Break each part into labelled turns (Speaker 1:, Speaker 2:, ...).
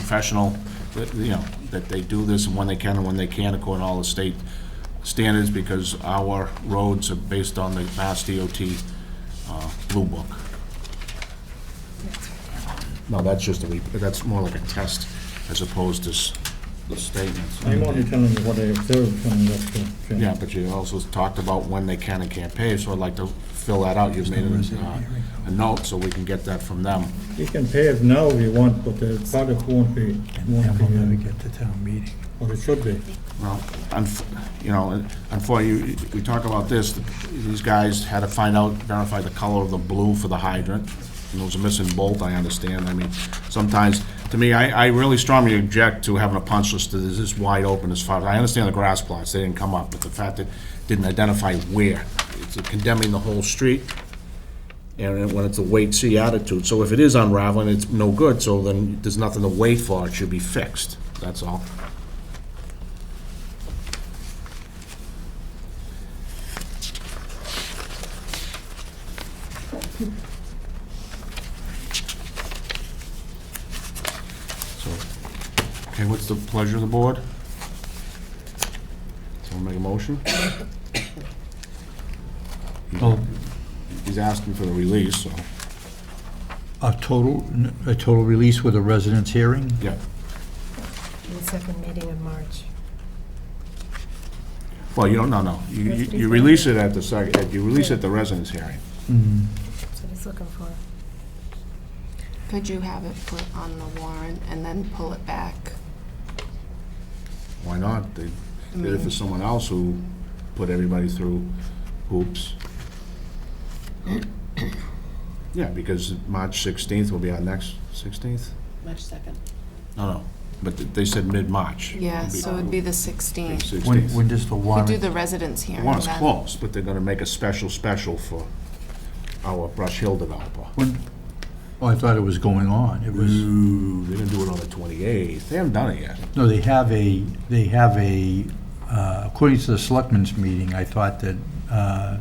Speaker 1: professional, that, you know, that they do this and when they can and when they can't according to all the state standards, because our roads are based on the Mass DOT uh, Blue Book. No, that's just a, re- that's more like a test as opposed to s- the statements.
Speaker 2: I'm only telling you what I observed from that. uh, training.
Speaker 1: Yeah, but you also talked about when they can and can't pay, so I'd like to fill that out. You've made it, uh, a note, so we can get that from them.
Speaker 2: You can pay it now if you want, but the product won't be, won't
Speaker 3: And we'll never
Speaker 2: be,
Speaker 3: get to town meeting.
Speaker 2: uh, or it should be.
Speaker 1: Well, unf- you know, unfortunately, you- we talk about this, these guys had to find out, verify the color of the blue for the hydrant. And there was a missing bolt, I understand. I mean, sometimes, to me, I, I really strongly object to having a punch list that is this wide open as far as, I understand the grass plots, they didn't come up, but the fact that it didn't identify where. It's condemning the whole street, and when it's a wait-see attitude. So if it is unraveling, it's no good, so then there's nothing to wait for, it should be fixed, that's all. So, okay, what's the pleasure of the board? Someone make a motion?
Speaker 3: Well,
Speaker 1: He's asking for the release, so,
Speaker 3: a total, a total release with a residence hearing?
Speaker 1: yeah.
Speaker 4: The second meeting in March.
Speaker 1: Well, you don't, no, no. You, you you release it at the second, you release it at the residence hearing.
Speaker 3: Hmm.
Speaker 4: That's what he's looking for.
Speaker 5: Could you have it put on the warrant and then pull it back?
Speaker 1: Why not? They
Speaker 5: I
Speaker 1: did it for
Speaker 5: mean,
Speaker 1: someone else who put everybody through hoops. Yeah, because March 16th will be our next, 16th?
Speaker 6: March 2nd.
Speaker 1: No, no, but th- they said mid-March.
Speaker 5: Yeah, so it'd be the 16th.
Speaker 1: 16th.
Speaker 3: When, when does the
Speaker 5: We do
Speaker 3: warrant,
Speaker 5: the residence hearing
Speaker 1: Well, it's
Speaker 5: then.
Speaker 1: close, but they're gonna make a special special for our Brush Hill developer.
Speaker 3: when, oh, I thought it was going on. It was,
Speaker 1: Ooh, they're gonna do it on the twenty-eighth. They haven't done it yet.
Speaker 3: no, they have a, they have a, uh, according to the selectmen's meeting, I thought that uh,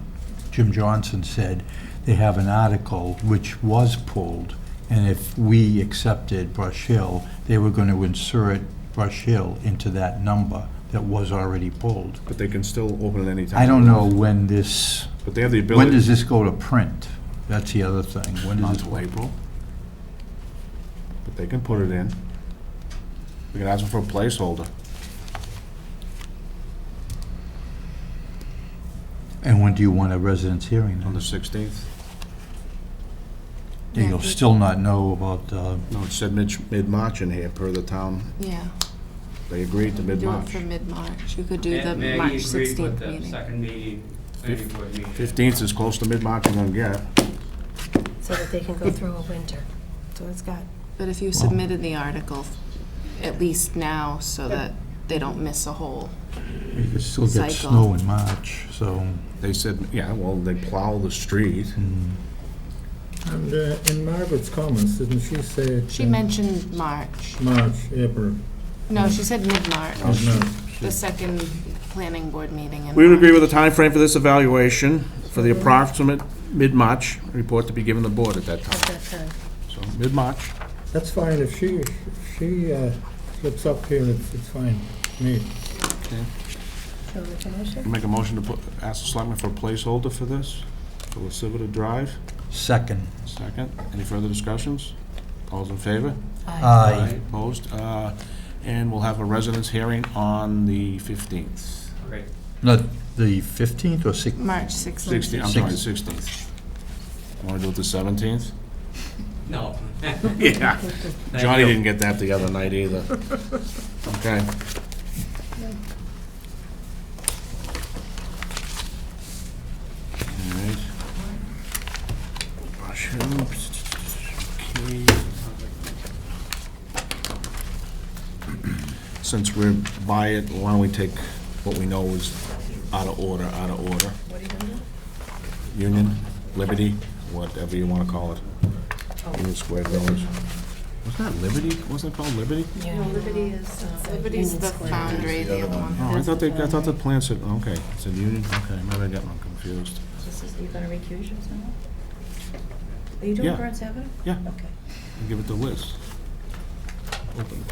Speaker 3: Jim Johnson said they have an article which was pulled, and if we accepted Brush Hill, they were going to insert Brush Hill into that number that was already pulled.
Speaker 1: But they can still open it anytime.
Speaker 3: I don't know when this,
Speaker 1: But they have the
Speaker 3: when
Speaker 1: ability,
Speaker 3: does this go to print? That's the other thing. When
Speaker 1: not
Speaker 3: does this?
Speaker 1: until April. But they can put it in. We can ask them for a placeholder.
Speaker 3: And when do you want a residence hearing?
Speaker 1: On
Speaker 3: then?
Speaker 1: the sixteenth?
Speaker 3: That You'll still not know about, uh,
Speaker 1: No, it said mid, mid-March in here, per the town.
Speaker 5: Yeah,
Speaker 1: They agreed to
Speaker 5: do it
Speaker 1: mid-March.
Speaker 5: for mid-March. You could do the
Speaker 7: Maggie
Speaker 5: March
Speaker 7: agreed
Speaker 5: 16th
Speaker 7: with the
Speaker 5: meeting.
Speaker 7: Second meeting, planning board meeting.
Speaker 1: Fifteenth is close to mid-March I'm gonna get.
Speaker 4: So that they can go through a winter. So it's got,
Speaker 5: But if you submitted the article, at least now, so that they don't miss a whole.
Speaker 3: you could still get
Speaker 5: Cycle.
Speaker 3: snow in March, so.
Speaker 1: They said, yeah, well, they plow the street.
Speaker 3: mm.
Speaker 2: And uh, in Margaret's comments, didn't she say?
Speaker 5: She
Speaker 2: uh,
Speaker 5: mentioned March.
Speaker 2: March, April,
Speaker 5: No, she said mid-March,
Speaker 2: no,
Speaker 5: the second planning board meeting in
Speaker 1: Oh, We would
Speaker 5: March.
Speaker 1: agree with the time frame for this evaluation, for the approximate mid-March report to be given the board at that
Speaker 4: at
Speaker 1: time.
Speaker 4: that time.
Speaker 1: So, mid-March.
Speaker 2: that's fine, if she, if she uh, slips up here, it's, it's fine, me.
Speaker 4: So we can issue.
Speaker 1: Make a motion to put, ask the selectmen for a placeholder for this, for La Civita Drive.
Speaker 3: Second.
Speaker 1: Second. Any further discussions? All's in favor?
Speaker 4: Uh,
Speaker 3: Aye.
Speaker 1: Opposed? Uh, And we'll have a residence hearing on the 15th.
Speaker 7: Right.
Speaker 3: Not the 15th or 16th?
Speaker 5: March 16th.
Speaker 1: 16th, I'm sorry, 16th. Want to do it the 17th?
Speaker 7: No.
Speaker 1: Yeah.
Speaker 7: Thank
Speaker 1: Johnny
Speaker 7: you.
Speaker 1: didn't get that the other night either. Okay. All right. Brush him. Okay. Since we're by it, why don't we take what we know is out of order, out of order? Union, Liberty, whatever you want to call it. Union Square Village. Wasn't that Liberty? Wasn't it called Liberty?
Speaker 4: Yeah.
Speaker 5: Liberty is. Liberty's the foundry, the other one.
Speaker 1: Oh, I thought they, I thought the plan said, oh, okay, it said Union, okay, maybe I got one confused.
Speaker 6: Are you going to recuse yourself? Are you
Speaker 1: Yeah.
Speaker 4: Oh,
Speaker 6: doing Burns Avenue?
Speaker 1: Yeah.
Speaker 6: Okay.
Speaker 1: Give it to Liz. Open